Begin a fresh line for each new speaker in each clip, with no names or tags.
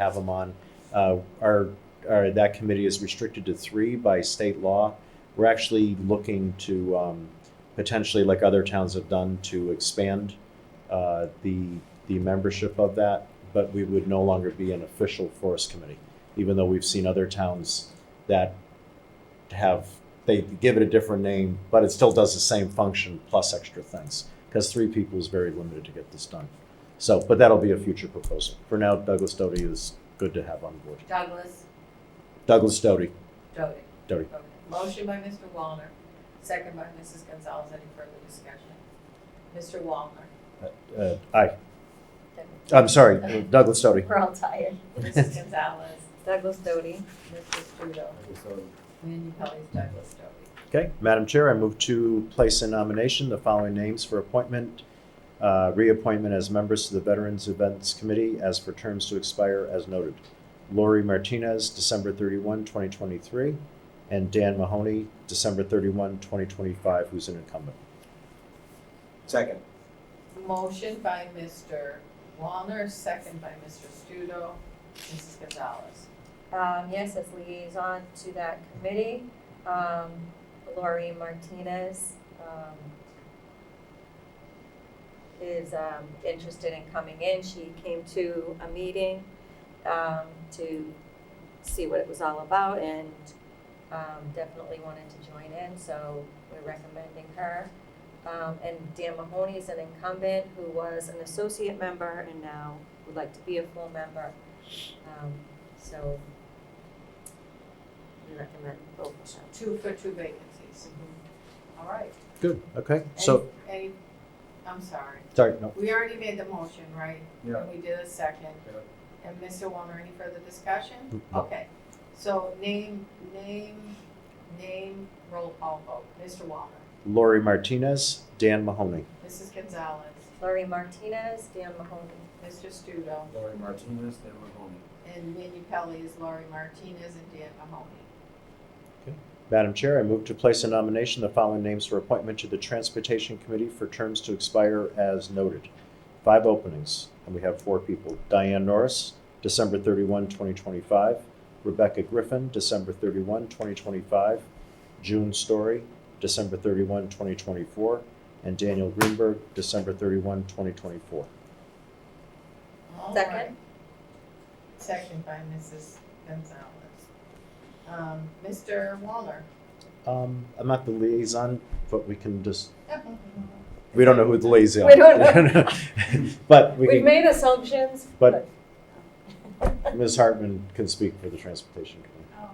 have them on. Uh, our, our, that committee is restricted to three by state law. We're actually looking to um, potentially, like other towns have done, to expand uh, the, the membership of that, but we would no longer be an official forest committee, even though we've seen other towns that have, they give it a different name, but it still does the same function plus extra things, because three people is very limited to get this done. So, but that'll be a future proposal. For now, Douglas Doty is good to have on board.
Douglas,
Douglas Doty,
Doty.
Doty.
Okay. Motion by Mr. Wallner, second by Mrs. Gonzalez. Any further discussion? Mr. Wallner.
Uh, aye. I'm sorry, Douglas Doty.
We're all tired.
Mrs. Gonzalez,
Douglas Doty.
Mr. Studo, and Kelly's Douglas Doty.
Okay, Madam Chair, I move to place in nomination the following names for appointment, uh, reappointment as members to the Veterans Events Committee as for terms to expire as noted. Lori Martinez, December 31, 2023, and Dan Mahoney, December 31, 2025, who's an incumbent.
Second.
Motion by Mr. Wallner, second by Mr. Studo. Mrs. Gonzalez.
Um, yes, as liaison to that committee, um, Lori Martinez, um, is, um, interested in coming in. She came to a meeting, um, to see what it was all about and, um, definitely wanted to join in, so we're recommending her. Um, and Dan Mahoney is an incumbent who was an associate member and now would like to be a full member. Um, so we recommend both of them.
Two for two vacancies.
Mm-hmm.
All right.
Good, okay, so,
Any, any- I'm sorry.
sorry, no,
We already made the motion, right?
Yeah.
And we did a second. And Mr. Wallner, any further discussion?
no.
Okay, so name, name, name, roll call vote. Mr. Walner,
Lori Martinez, Dan Mahoney.
Mrs. Gonzalez,
Laurie Martinez, Dan Mahoney.
Mr. Studo,
Lori Martinez, Dan Mahoney.
and Minnie Pelley is Laurie Martinez and Dan Mahoney.
Madam Chair, I move to place in nomination the following names for appointment to the Transportation Committee for terms to expire as noted. Five openings, and we have four people. Diane Norris, December 31, 2025. Rebecca Griffin, December 31, 2025. June Story, December 31, 2024. And Daniel Greenberg, December 31, 2024.
All
Second.
right. Second by Mrs. Gonzalez. Um, Mr. Walner.
Um, I'm not the liaison, but we can just, we don't know who the liaison
We don't
is. But we
We've
can
made assumptions,
But-
but.
Ms. Hartman can speak for the transportation committee.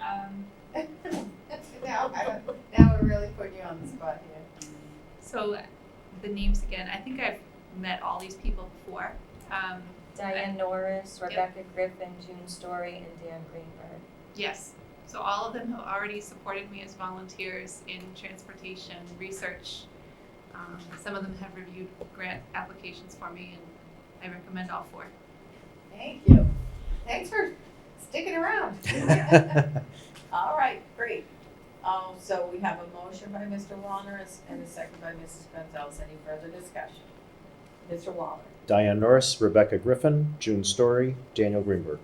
Oh, um,
Now, I, now we're really putting you on the spot here.
so the names again, I think I've met all these people before. Um,
Diane Norris, Rebecca Griffin, June Story, and Dan Greenberg.
yes, so all of them have already supported me as volunteers in transportation research. Um, some of them have reviewed grant applications for me and I recommend all four.
Thank you. Thanks for sticking around. All right, great. Um, so we have a motion by Mr. Wallner and a second by Mrs. Gonzalez. Any further discussion? Mr. Wallner,
Diane Norris, Rebecca Griffin, June Story, Daniel Greenberg.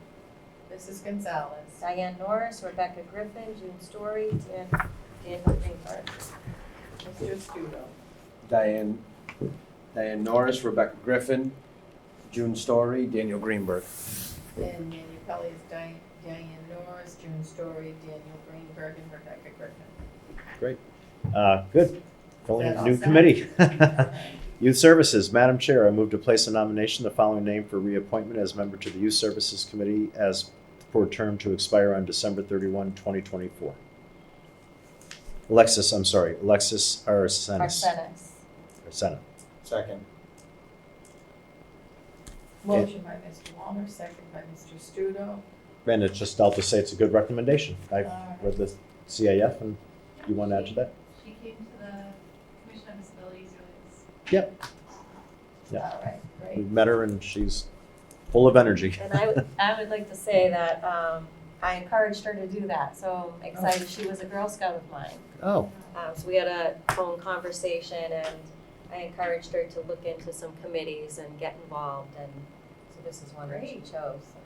Mrs. Gonzalez,
Diane Norris, Rebecca Griffin, June Story, Dan, Dan Greenberg.
Mr. Studo,
Diane, Diane Norris, Rebecca Griffin, June Story, Daniel Greenberg.
and Manu Pelley is Di- Diane Norris, June Story, Daniel Greenberg, and Rebecca Griffin.
Uh, Good. Filling
Is
a
that
new
all set?
committee.
All right.
Youth Services, Madam Chair, I move to place a nomination, the following name for reappointment as member to the Youth Services Committee as for term to expire on December 31, 2024. Alexis, I'm sorry, Alexis Arsenis.
Arsenis.
Arsenis.
Second.
Motion by Mr. Wallner, second by Mr. Studo.
And it's just, I'll just say it's a good recommendation. I
All right.
read the CIF, and you want to add to that?
She came to the Commission on Disabilities,
Yeah.
All right, great.
We've met her, and she's full of energy.
And I would, I would like to say that, um, I encouraged her to do that, so I'm excited. She was a Girl Scout of mine.
Oh,
Um, so we had a phone conversation and I encouraged her to look into some committees and get involved and so this is one that she chose. so